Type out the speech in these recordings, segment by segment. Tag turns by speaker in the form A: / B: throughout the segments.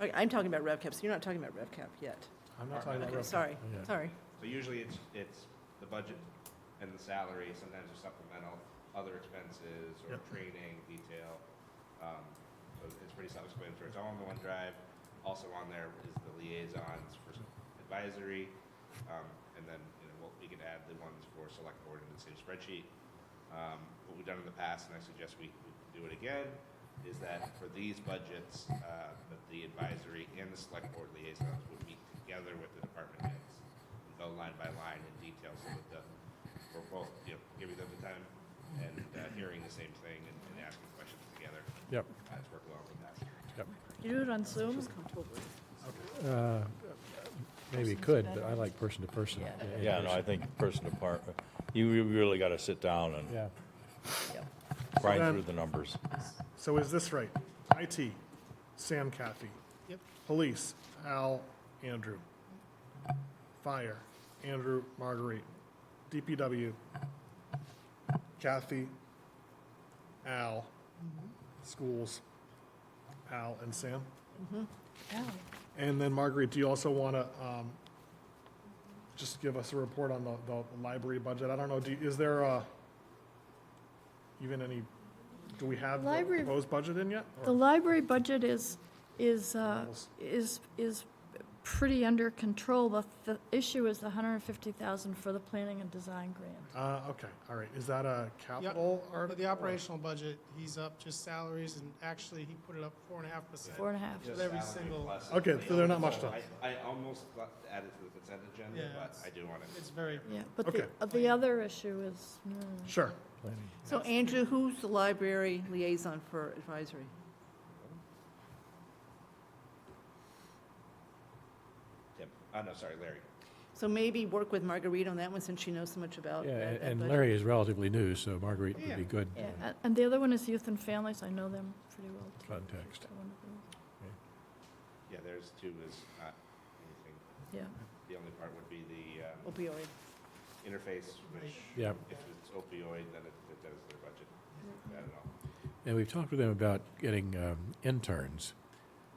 A: Okay, I'm talking about RevCap, so you're not talking about RevCap yet.
B: I'm not talking about.
A: Okay,
B: rev-
A: sorry,
B: yeah.
A: sorry.
C: So usually it's, it's the budget and the salary, sometimes there's supplemental, other expenses or
B: Yep.
C: training, detail. Um, So it's pretty self-explanatory. It's all on the OneDrive. Also on there is the liaisons for advisory. Um, And then, you know, we'll- we could add the ones for select board into the same spreadsheet. Um, What we've done in the past, and I suggest we we do it again, is that for these budgets, uh, that the advisory and the select board liaisons would meet together with the department heads and go line by line in detail so that the, we're both, you know, giving them the time and uh, hearing the same thing and and asking questions together.
B: Yep,
C: Uh, It's worked well in the past.
B: yep.
D: You do it on Zoom?
B: Uh, Maybe
D: Person's
B: could, but
D: better.
B: I like person to person.
D: Yeah.
B: in
E: Yeah, no, I
B: person.
E: think person to part, you re- really got to sit down and
B: Yeah.
E: grind
F: then-
E: through the numbers.
F: So is this right? IT, Sam Kathy.
A: Yep.
F: Police, Al, Andrew. Fire, Andrew, Marguerite. DPW, Kathy, Al. Schools, Al and Sam.
D: Oh,
F: And then Marguerite, do you also want to just give us a report on the, the library budget? I don't know, do, is there uh, even any, do we have the
D: Library-
F: proposed budget in yet?
D: The
F: Or-
D: library budget is, is, uh,
F: Almost.
D: is, is pretty under control. The, the issue is the hundred and fifty thousand for the planning and design grant.
F: Uh, okay, all right, is that a capital
G: But
F: article?
G: the operational budget, he's up just salaries, and actually, he put it up four and a half percent.
D: Four and a half.
C: Just
G: Every
C: salary
G: single-
C: plus-
F: Okay, so they're not much
C: So
F: done.
C: I, I almost got added to the consent agenda,
G: Yeah,
C: but
G: it's-
C: I do want to.
G: It's very,
D: Yeah, but the,
F: Okay.
D: uh, the other issue is, mm,
F: Sure,
B: planning.
A: So Andrew, who's the library liaison for advisory?
C: Tim, oh, no, sorry, Larry.
A: So maybe work with Marguerite on that one, since she knows so much about
B: Yeah,
A: Oh, that. that
B: and
A: budget.
B: Larry is relatively new, so Marguerite would be
C: Yeah.
B: good
D: yeah, a- and the other one is youth and families. I know them pretty well. too.
B: context.
D: I wonder if
C: Yeah, there's two is not anything.
D: they- Yeah,
C: The only part would be the um,
A: Opioid.
C: interface, which
B: Yeah,
C: if it's opioid, then it it does their budget. I don't know.
B: and we've talked with them about getting um, interns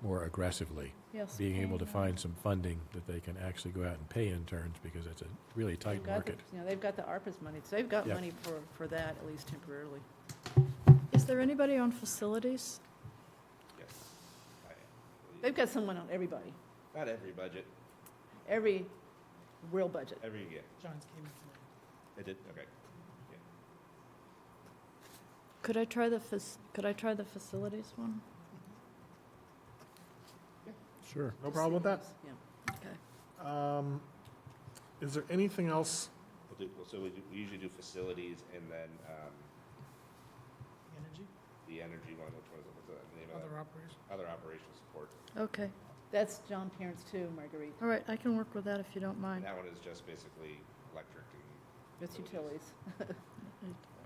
B: more aggressively,
D: yes.
B: being able to
D: Pam.
B: find some funding that they can actually go out and pay interns because it's a really
A: They've
B: tight
A: got the-
B: market.
A: You know, they've got the ARPA's money, so they've got
B: Yeah.
A: money for, for that, at least temporarily.
D: Is there anybody on facilities?
C: Yes. I-
A: They've got someone on everybody,
C: Not every budget,
A: every real budget.
C: every year.
G: John's came in tonight.
C: It did, okay.
D: Could I try the, fac- could I try the facilities one?
B: Sure.
F: no problem with that.
A: Yeah.
F: Um, Is there anything else?
C: We'll do, well, so we do- we usually do facilities and then um,
G: Energy,
C: the energy one, which was, what's the name of
G: other
C: that?
G: operations.
C: Other operational support.
D: Okay,
A: That's John Parents too, Marguerite.
D: all right, I can work with that if you don't
C: And
D: mind.
C: that one is just basically electric and,
A: It's utilities.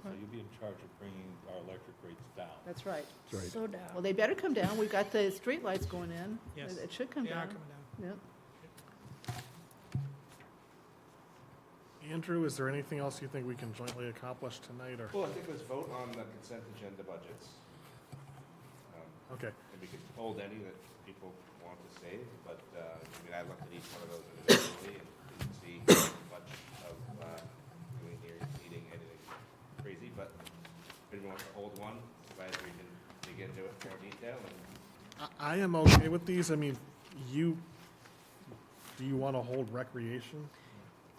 E: So you'll be in charge of bringing our electric rates down.
A: That's right.
B: That's right.
D: So down.
A: Well, they better come down. We've got the street lights going in.
G: Yes.
A: It should come
G: They are
A: down.
G: coming down.
A: Yep.
F: Andrew, is there anything else you think we can jointly accomplish tonight, or,
C: well, I think let's vote on the consent agenda budgets. Um,
F: okay,
C: And we can hold any that people want to save, but, uh, I mean, I looked at each one of those individually and didn't see much of, uh, doing here, eating anything crazy, but if anyone wants to hold one, glad we can dig into it in more detail and
F: I- I am okay with these, I mean, you, do you want to hold recreation?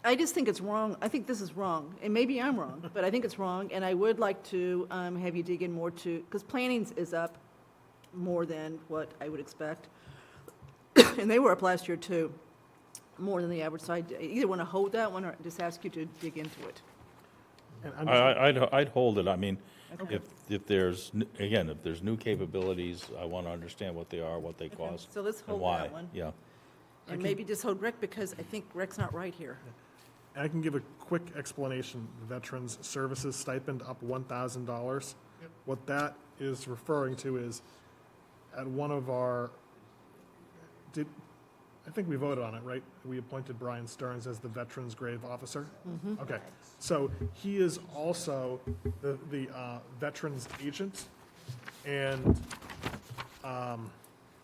A: I just think it's wrong. I think this is wrong, and maybe I'm wrong, but I think it's wrong, and I would like to um, have you dig in more to, because planning's is up more than what I would expect. And they were up last year too, more than the average, so I either want to hold that one or just ask you to dig into it.
F: And
E: I,
F: I'm just-
E: I- I'd, I'd hold it. I mean, if, if there's, n- again, if there's new capabilities, I want to understand what they are, what they cost,
A: So let's
E: and
A: hold
E: why.
A: that one.
E: Yeah.
A: And maybe just hold rec, because I think rec's not right here.
F: I can give a quick explanation. Veterans Services stipend up one thousand dollars.
G: Yep.
F: What that is referring to is at one of our, did, I think we voted on it, right? We appointed Brian Stearns as the Veterans Grave Officer. Okay, so he is also the, the, uh, Veterans Agent. And, um,